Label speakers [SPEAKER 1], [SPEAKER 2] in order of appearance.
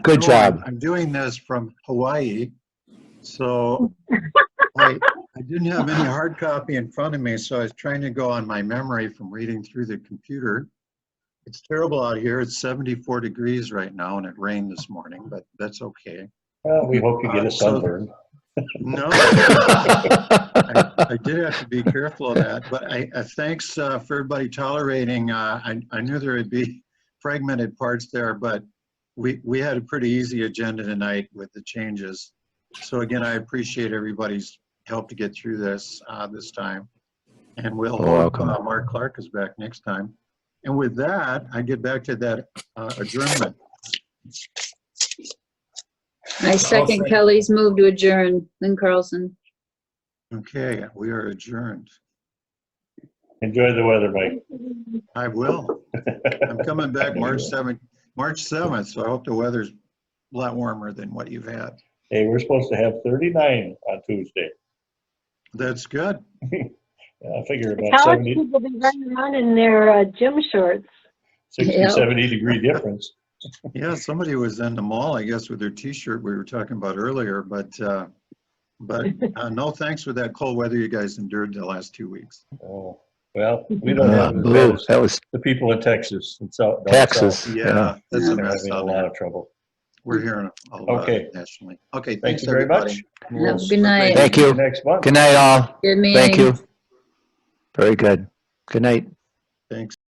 [SPEAKER 1] Good
[SPEAKER 2] No, I'm-
[SPEAKER 1] job.
[SPEAKER 2] I'm doing this from Hawaii, so I, I didn't have any hard copy in front of me, so I was trying to go on my memory from reading through the computer. It's terrible out here. It's 74 degrees right now, and it rained this morning, but that's okay.
[SPEAKER 3] Well, we hope you get
[SPEAKER 2] Uh,
[SPEAKER 3] a
[SPEAKER 2] so-
[SPEAKER 3] sunburn.
[SPEAKER 2] No,
[SPEAKER 1] Thank
[SPEAKER 2] I I did have to be careful of that, but I, I thanks uh, for everybody tolerating. uh, I, I knew there would be fragmented parts there, but we, we had a pretty easy agenda tonight with the changes. So again, I appreciate everybody's help to get through this, uh, this time. And we'll,
[SPEAKER 1] You're
[SPEAKER 2] hope,
[SPEAKER 1] welcome.
[SPEAKER 2] uh, Mark Clark is back next time. And with that, I get back to that uh, adjournment.
[SPEAKER 4] I second Kelly's move to adjourn. Lynn Carlson.
[SPEAKER 2] Okay, we are adjourned.
[SPEAKER 3] Enjoy the weather, Mike.
[SPEAKER 2] I will. I'm coming back March 7th, March 7th, so I hope the weather's a lot warmer than what you've had.
[SPEAKER 3] Hey, we're supposed to have 39 on Tuesday.
[SPEAKER 2] That's good.
[SPEAKER 3] I figure about
[SPEAKER 5] College
[SPEAKER 3] 70,
[SPEAKER 5] people be running around in their uh, gym shorts.
[SPEAKER 3] 60,
[SPEAKER 4] Yeah.
[SPEAKER 3] 70 degree difference.
[SPEAKER 2] Yeah, somebody was in the mall, I guess, with their t-shirt we were talking about earlier, but, uh, but uh, no thanks for that cold weather you guys endured the last two weeks.
[SPEAKER 3] Oh, Well, we don't
[SPEAKER 1] Uh,
[SPEAKER 3] have as bad
[SPEAKER 1] Blue,
[SPEAKER 3] as
[SPEAKER 1] that was
[SPEAKER 3] the people in Texas and South. down
[SPEAKER 1] Texas.
[SPEAKER 3] south.
[SPEAKER 2] Yeah, that's a
[SPEAKER 3] They're
[SPEAKER 2] mess
[SPEAKER 3] having a
[SPEAKER 2] out
[SPEAKER 3] lot
[SPEAKER 2] there.
[SPEAKER 3] of trouble.
[SPEAKER 2] We're hearing a lot
[SPEAKER 3] Okay.
[SPEAKER 2] nationally. Okay,
[SPEAKER 3] Thank
[SPEAKER 2] thanks
[SPEAKER 3] you very much.
[SPEAKER 2] everybody.
[SPEAKER 4] Have a good night.
[SPEAKER 1] Thank
[SPEAKER 3] See
[SPEAKER 1] you.
[SPEAKER 3] you Next month.
[SPEAKER 1] Good night, all.
[SPEAKER 4] Good meeting.
[SPEAKER 1] Thank you. Very good. Good night.
[SPEAKER 2] Thanks.